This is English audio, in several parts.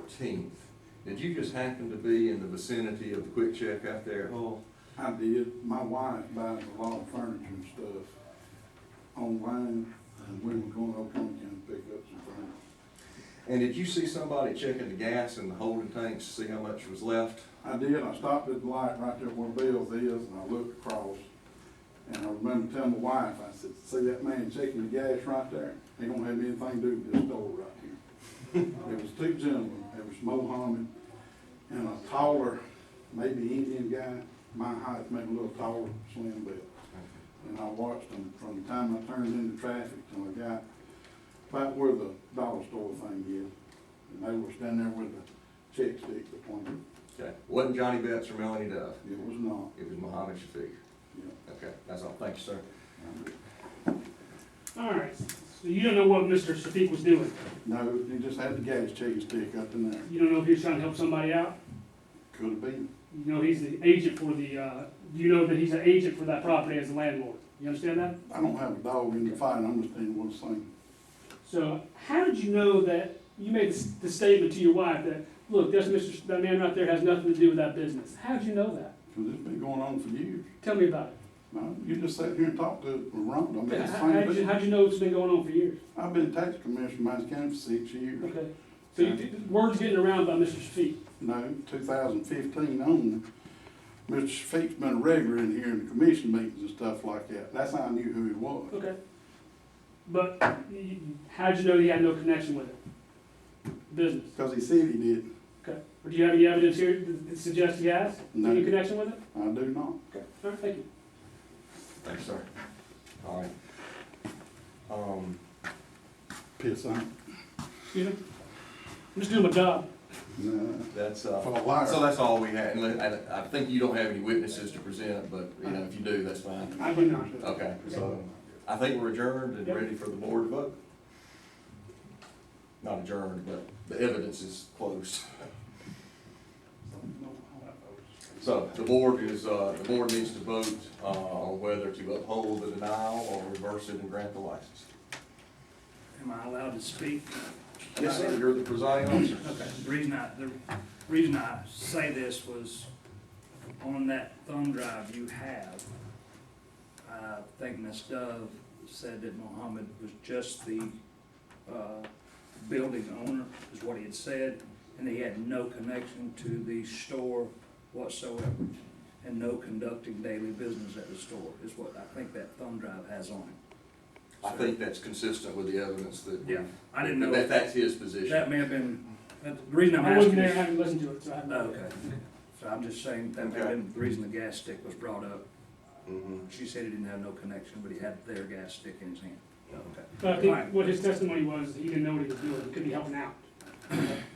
fourteenth. Did you just happen to be in the vicinity of the quick check out there at Hull? I did, my wife buys a lot of furniture and stuff online, and we were going to Oklahoma and pick up some furniture. And did you see somebody checking the gas in the holding tanks to see how much was left? I did, I stopped at the light right there where Bill's is, and I looked across, and I remember telling my wife, I said, see that man checking the gas right there? He don't have anything to do with this store right here. It was two gentlemen, it was Mohammed and a taller, maybe Indian guy, my height, maybe a little taller, slim built. And I watched them from the time I turned into traffic till I got about where the dollar store thing is. And they were standing there with the check stick pointing. Okay. Wasn't Johnny Betts or Melanie Dove? It was not, It was Mohammed Shafiq. yeah. Okay, that's all. Thank you, sir. All right, so you don't know what Mr. Sadiq was doing? No, he just had the gas check stick up in there. You don't know if he was trying to help somebody out? Could have been. You know, he's the agent for the, uh, you know that he's an agent for that property as a landlord. You understand that? I don't have a dog in the fight, I understand what I'm saying. So how did you know that, you made the s- the statement to your wife that, look, that's Mr., S- that man right there has nothing to do with that business. How did you know that? Because it's been going on for years. Tell me about it. No, you just sat here and talked to Rhonda, I mean, it's the How- How'd same you, thing. how'd you know it's been going on for years? I've been tax commissioner in Mines County for six years. Okay. So you, word's getting around about Mr. Sadiq. No, two thousand fifteen on, Mr. Shafik's been a regular in here in the commission meetings and stuff like that. That's how I knew who he was. Okay. But y- y- how'd you know he had no connection with it? Business? Because he said he did. Okay. Or do you have any evidence here that suggests he has? No. Any connection with it? I do not. Okay. All right, thank you. Thank you, sir. All right. Um, Piss on. Excuse me? I'm just doing my job. No. that's, uh, For a liar. so that's all we had. And let- and I think you don't have any witnesses to present, but, you know, if you do, that's fine. I do not. Okay, so I think we're adjourned and ready for the board to vote. Not adjourned, but the evidence is closed. So the board is, uh, the board needs to vote, uh, on whether to uphold the denial or reverse it and grant the license. Am I allowed to speak? Yes, sir, you're the presiding officer. Okay, the reason I, the reason I say this was on that thumb drive you have, I think Ms. Dove said that Mohammed was just the, uh, building owner, is what he had said, and he had no connection to the store whatsoever, and no conducting daily business at the store, is what I think that thumb drive has on it. I think that's consistent with the evidence that. Yeah, I didn't know. That, that's his That position. may have been, that's the reason I'm I wasn't asking there, I is. haven't listened to it, so I have no idea. Okay, so I'm just saying that may have been the reason the gas stick was brought up. Mhm. She said he didn't have no connection, but he had their gas stick in his hand. Okay. But I think Right. what his testimony was, he didn't know what he was doing, could be helping out.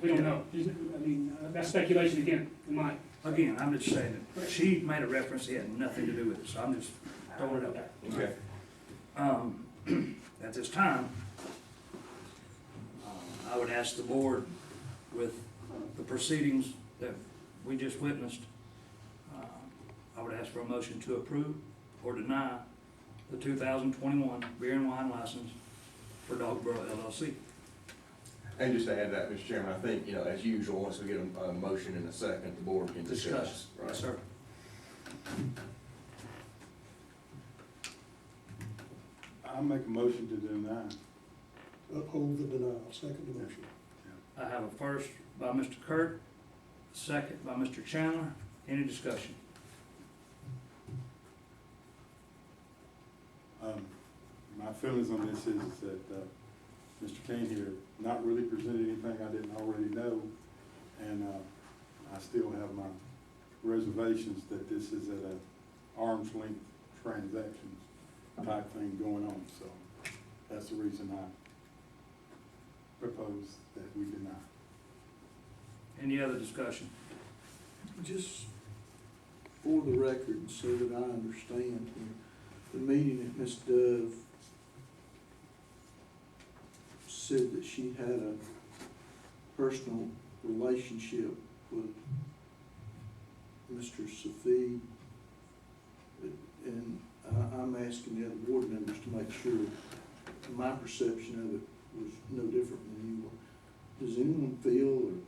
We don't know. He's- I mean, uh, that's speculation again, in my, Again, I'm just saying that she made a reference, he had nothing to do with it, so I'm just throwing it out there. Okay. Um, at this time, uh, I would ask the board with the proceedings that we just witnessed, uh, I would ask for a motion to approve or deny the two thousand twenty-one beer and wine license for Dogborough LLC. And just to add that, Mr. Chairman, I think, you know, as usual, once we get a, a motion and a second, the board can discuss. Yes, Right. sir. I make a motion to deny. Uphold the denial, second the motion. I have a first by Mr. Kurt, second by Mr. Chandler. Any discussion? Um, My feelings on this is that uh, Mr. Kane here not really presented anything I didn't already know, and uh, I still have my reservations that this is at an arm's length transaction type thing going on, so that's the reason I propose that we deny. Any other discussion? Just for the record, so that I understand here, the meeting that Ms. Dove said that she had a personal relationship with Mr. Safi. And I, I'm asking the other board members to make sure my perception of it was no different than you were. Does anyone feel or